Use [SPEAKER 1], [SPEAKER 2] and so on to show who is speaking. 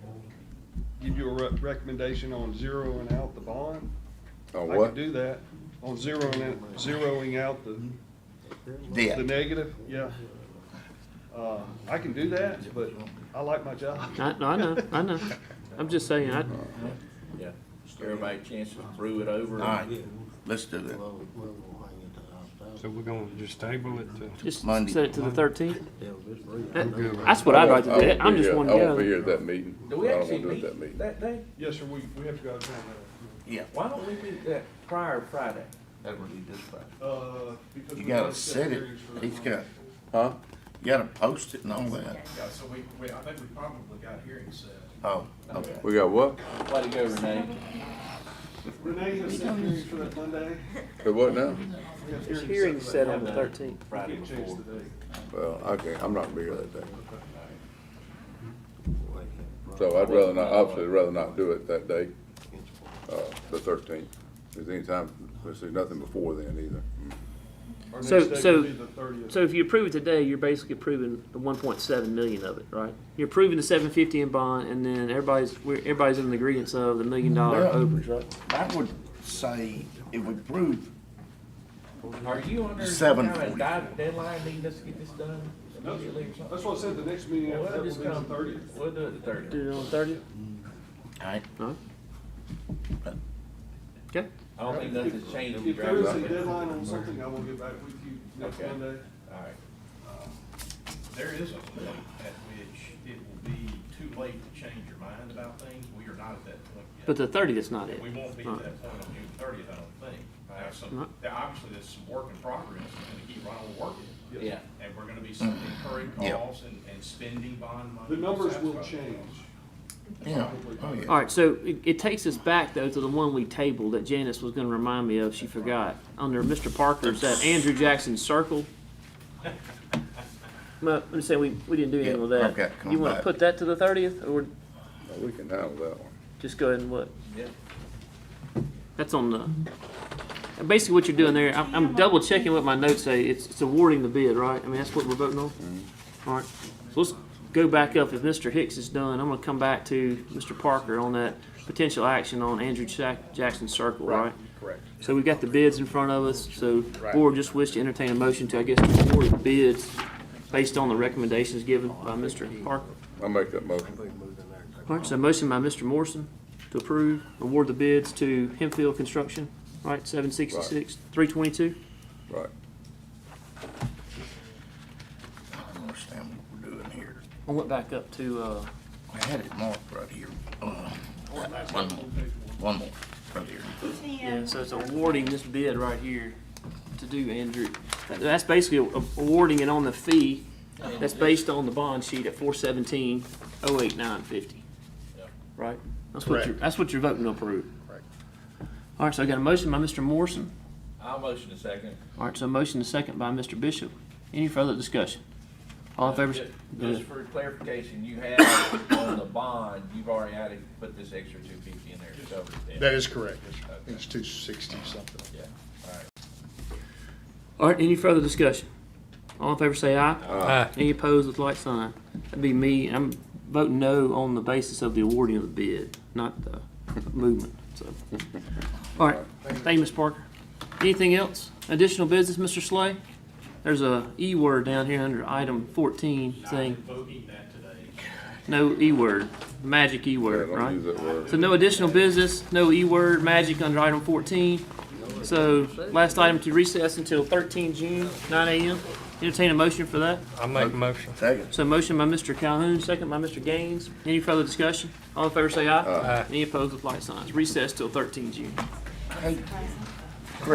[SPEAKER 1] you a re- recommendation on zeroing out the bond?
[SPEAKER 2] On
[SPEAKER 1] I
[SPEAKER 2] what?
[SPEAKER 1] could do that, on zeroing, it- zeroing out the, the
[SPEAKER 2] Debt.
[SPEAKER 1] negative, yeah. Uh, I can do that, but I like my job.
[SPEAKER 3] I, I know, I know. I'm just saying, I,
[SPEAKER 4] Yeah, everybody chances threw it over.
[SPEAKER 2] All right, let's do that.
[SPEAKER 5] So we're gonna just table it to,
[SPEAKER 3] just
[SPEAKER 2] Monday.
[SPEAKER 3] set it to the thirteenth.
[SPEAKER 5] I'm good with
[SPEAKER 3] That's what I'd like to do. I'm just one to
[SPEAKER 6] I won't be here
[SPEAKER 3] go.
[SPEAKER 6] at that meeting. I
[SPEAKER 4] Do
[SPEAKER 6] don't
[SPEAKER 4] we
[SPEAKER 6] want
[SPEAKER 4] actually
[SPEAKER 6] to do it at
[SPEAKER 4] meet
[SPEAKER 6] that meeting.
[SPEAKER 4] that day?
[SPEAKER 1] Yes, sir, we, we have to go out of town
[SPEAKER 2] Yeah,
[SPEAKER 4] Why don't we meet that prior Friday? That would be this Friday.
[SPEAKER 1] that, uh, because.
[SPEAKER 2] you
[SPEAKER 1] we
[SPEAKER 2] gotta
[SPEAKER 1] both set
[SPEAKER 2] set it,
[SPEAKER 1] hearings for the
[SPEAKER 2] he's
[SPEAKER 1] month.
[SPEAKER 2] got, huh? You gotta post it and all that.
[SPEAKER 7] Yeah, so we, we, I think we probably got hearings set.
[SPEAKER 2] Oh, okay.
[SPEAKER 6] We got what?
[SPEAKER 4] Way to go, Renee.
[SPEAKER 1] Renee has set hearings for that Monday.
[SPEAKER 6] For what now?
[SPEAKER 1] We have
[SPEAKER 3] Hearing's set on the
[SPEAKER 1] that
[SPEAKER 3] thirteenth.
[SPEAKER 1] Monday.
[SPEAKER 4] Friday
[SPEAKER 1] Can't change
[SPEAKER 4] before.
[SPEAKER 1] the date.
[SPEAKER 6] Well, I can't, I'm not gonna be here that day. So I'd rather not, obviously I'd rather not do it that day, uh, the thirteenth. There's any time, there's nothing before then either.
[SPEAKER 1] Our
[SPEAKER 3] So-
[SPEAKER 1] next date
[SPEAKER 3] so-
[SPEAKER 1] would be the 30th.
[SPEAKER 3] So if you approve it today, you're basically approving the one point seven million of it, right? You're approving the seven fifty in bond, and then everybody's, we're, everybody's in the agreement of the million dollar
[SPEAKER 2] Yeah.
[SPEAKER 3] overs, right?
[SPEAKER 2] I would say if we prove,
[SPEAKER 4] Are you under some
[SPEAKER 2] Seven
[SPEAKER 4] kind of
[SPEAKER 2] forty.
[SPEAKER 4] di- deadline, needing us to get this done immediately or something?
[SPEAKER 1] That's what I said, the next meeting
[SPEAKER 4] Well,
[SPEAKER 1] after that will
[SPEAKER 4] we'll
[SPEAKER 1] be
[SPEAKER 4] just
[SPEAKER 1] the
[SPEAKER 4] come,
[SPEAKER 1] thirtieth.
[SPEAKER 4] we'll do it the thirtieth.
[SPEAKER 3] Do it on the thirtieth?
[SPEAKER 2] alright,
[SPEAKER 3] No? Okay,
[SPEAKER 4] I don't think nothing's changed.
[SPEAKER 1] If there is a deadline on something, I will get back with you next
[SPEAKER 4] Okay.
[SPEAKER 1] Monday.
[SPEAKER 4] Alright,
[SPEAKER 7] There is a point at which it will be too late to change your mind about things. We are not at that point yet.
[SPEAKER 3] but the thirtieth is not it.
[SPEAKER 7] We won't be at that point on June thirtieth, I don't think. Now,
[SPEAKER 3] No.
[SPEAKER 7] some, there- obviously, there's some work in progress, we're gonna keep right on working.
[SPEAKER 1] Yes.
[SPEAKER 4] yeah.
[SPEAKER 7] And we're gonna be incurring
[SPEAKER 2] Yeah.
[SPEAKER 7] costs and, and spending bond money.
[SPEAKER 1] The
[SPEAKER 7] to
[SPEAKER 1] numbers will
[SPEAKER 7] satisfy those.
[SPEAKER 1] change.
[SPEAKER 2] yeah, oh yeah.
[SPEAKER 3] All right, so it, it takes us back though to the one we tabled that Janice was gonna remind me of, she forgot. Under Mr. Parker's, that Andrew Jackson Circle. Well, I'm just saying, we, we didn't do anything with
[SPEAKER 2] Yeah,
[SPEAKER 3] that.
[SPEAKER 2] okay, come
[SPEAKER 3] You wanna
[SPEAKER 2] back.
[SPEAKER 3] put that to the thirtieth, or
[SPEAKER 6] We can handle that one.
[SPEAKER 3] just go ahead and what?
[SPEAKER 4] Yeah.
[SPEAKER 3] That's on the, and basically what you're doing there, I'm, I'm double checking what my notes say, it's, it's awarding the bid, right? I mean, that's what we're voting on?
[SPEAKER 6] Mm-hmm.
[SPEAKER 3] All right, so let's go back up, if Mr. Hicks is done, I'm gonna come back to Mr. Parker on that potential action on Andrew Jack- Jackson Circle, right?
[SPEAKER 7] Correct.
[SPEAKER 3] So we've got the bids in front of us, so board just wish to entertain a motion to, I guess, award the bids based on the recommendations given by Mr. Parker.
[SPEAKER 6] I'll make that motion.
[SPEAKER 3] All right, so motion by Mr. Morrison to approve, award the bids to Hempfield Construction, right, seven sixty-six, three twenty-two?
[SPEAKER 6] Right.
[SPEAKER 2] I don't understand what we're doing here.
[SPEAKER 3] I went back up to, uh,
[SPEAKER 2] I had it marked right here. Uh, One more, one more, right here.
[SPEAKER 3] yeah, so it's awarding this bid right here to do Andrew. That- That's basically a- awarding it on the fee, that's based on the bond sheet at four seventeen, oh eight nine fifty. Right? That's what you're, that's what you're voting to approve.
[SPEAKER 2] Correct.
[SPEAKER 3] All right, so I got a motion by Mr. Morrison,
[SPEAKER 4] I'll motion a second.
[SPEAKER 3] All right, so motion and second by Mr. Bishop. Any further discussion? All in favor?
[SPEAKER 4] Ju- Just for clarification, you have on the bond, you've already had to put this extra two fifty in there to cover it.
[SPEAKER 8] That is correct. It's- It's two sixty something.
[SPEAKER 4] Yeah, all right.
[SPEAKER 3] All right, any further discussion? All in favor say aye. Aye. Any opposed with like sign? That'd be me. I'm voting no on the basis of the awarding of the bid, not the movement, so. All right, thank you, Ms. Parker. Anything else? Additional business, Mr. Slay? There's a E word down here under item fourteen saying,
[SPEAKER 7] Voting that today.
[SPEAKER 3] no E word, magic E
[SPEAKER 6] Yeah,
[SPEAKER 3] word,
[SPEAKER 6] don't
[SPEAKER 3] right?
[SPEAKER 6] use that word.
[SPEAKER 3] So no additional business, no E-word magic under item fourteen. So last item to recess until thirteen June, nine AM. Entertain a motion for that.
[SPEAKER 5] it. I make a motion.
[SPEAKER 2] Second.
[SPEAKER 3] So motion by Mr. Calhoun, second by Mr. Gaines. Any further discussion? All in favor say aye. Any opposed with like signs. Recess till thirteen June.
[SPEAKER 2] Hey,